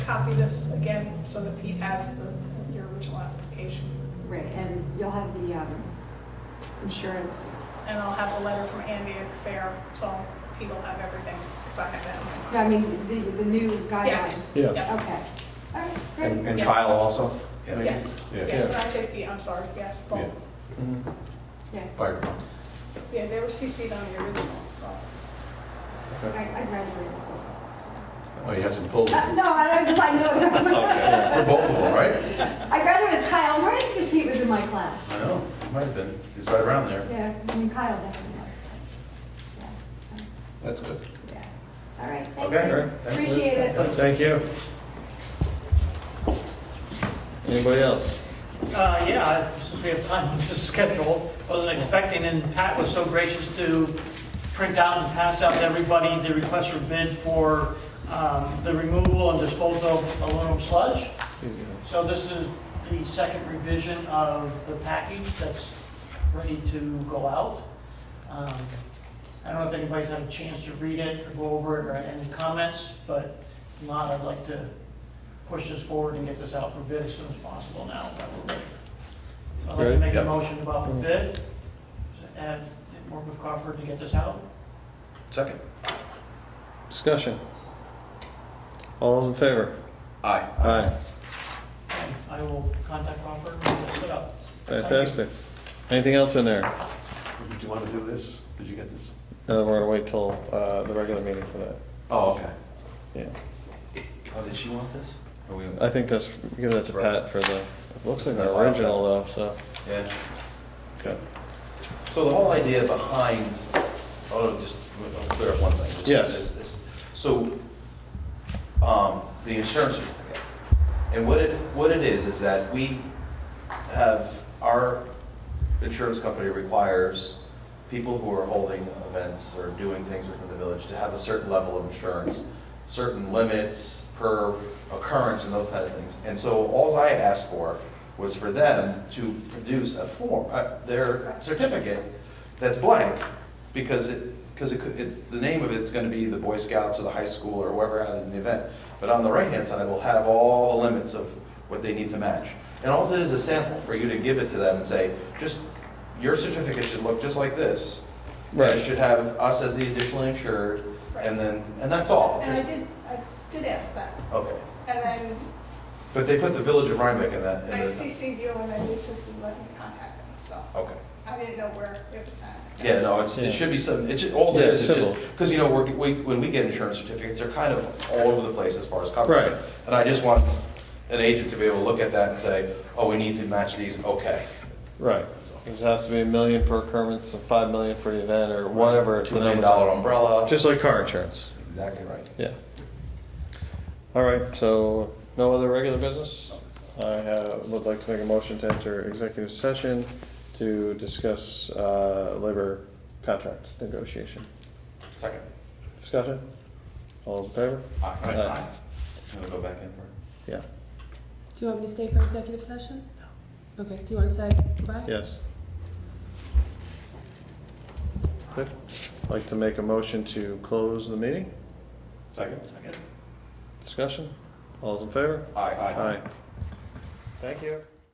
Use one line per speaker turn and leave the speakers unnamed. copy this again so that Pete has the, your original application.
Right, and you'll have the um, insurance.
And I'll have a letter from Andy at the fair, so Pete will have everything, so I have that in my
No, I mean, the, the new guidelines.
Yes.
Yeah.
Yeah.
Okay. All right,
And
great.
and
Yeah.
Kyle also?
mind.
maybe?
Yes,
Yeah,
yeah, I say Pete, I'm sorry, yes, both.
Yeah.
Yeah,
fire department.
Yeah, they were CC'd on the original, so.
I I graduated.
Oh, you had some pull.
Uh, No, I don't, just I know that.
For both of them, right?
I graduated with Kyle, I'm right, because Pete was in my class.
I know, it might have been, he's right around there.
Yeah, I mean, Kyle definitely was. Yeah,
That's good.
so, yeah. All right, thank
Okay.
you.
Alright,
thanks, Liz.
Appreciate it.
Thank you. Anybody else?
Uh, Yeah, since we have time to schedule, wasn't expecting, and Pat was so gracious to print out and pass out to everybody the request for bid for um, the removal and disposal of aluminum sludge. So this is the second revision of the package that's ready to go out. Um, I don't know if anybody's had a chance to read it or go over it or any comments, but if not, I'd like to push this forward and get this out for bid as soon as possible now. that we're ready. So I'd like to
Great.
make a
Yep.
motion about for bid and work with Crawford to get this out.
Second.
Discussion. All those in favor?
Aye.
Aye.
And I will contact Crawford and get this set up. Thank you.
Fantastic. Anything else in there?
Did you want to do this? Did you get this?
No, we're gonna wait till, uh, the regular meeting for that.
Oh, okay.
Yeah.
Oh, did she want this? Uh, Or we-
I think that's, give that to Pat for the, it looks like the original though, so.
Yeah,
Okay.
so the whole idea behind, oh, just, I'll clear up one thing. Just-
Yes.
is- is- So, um, the insurance certificate, and what it, what it is, is that we have, our insurance company requires people who are holding events or doing things within the village to have a certain level of insurance, certain limits per occurrence and those kind of things. And so alls I asked for was for them to produce a form, uh, their certificate that's blank, because it, because it could, it's, the name of it's gonna be the Boy Scouts or the high school or whoever has the event. But on the right-hand side, we'll have all the limits of what they need to match. And all it is is a sample for you to give it to them and say, just, your certificate should look just like this. And
Right.
it should have us as the additional insured, and then, and that's all.
And I
Just-
did, I did ask that,
Okay.
and then
But they put the village of Rhinebeck in that, in
I
the,
CC'd you and then you said you let me contact them, so.
okay.
I didn't know where it was at.
Yeah, no, it's,
Yeah.
it should be some, it should, all
Yeah,
it is, is
civil.
just, because, you know, we're, we, when we get insurance certificates, they're kind of all over the place as far as coverage.
Right.
And I just want an agent to be able to look at that and say, oh, we need to match these, okay.
Right.
That's all.
It has to be a million per occurrence, and five million for the event, or whatever.
Two
the
million
numbers are.
dollar umbrella.
Just like car insurance.
Exactly right.
Yeah. All right, so no other regular business? I have, would like to make a motion to enter executive session to discuss uh, labor contract negotiation.
Second.
Discussion? All in favor?
Aye.
Aye.
Gonna go back in for,
Yeah,
Do you want me to stay for executive session? No. Okay, do you want to say goodbye?
yes. Good. Like to make a motion to close the meeting?
Second?
Okay.
Discussion? All's in favor?
aye.
Aye. Thank you.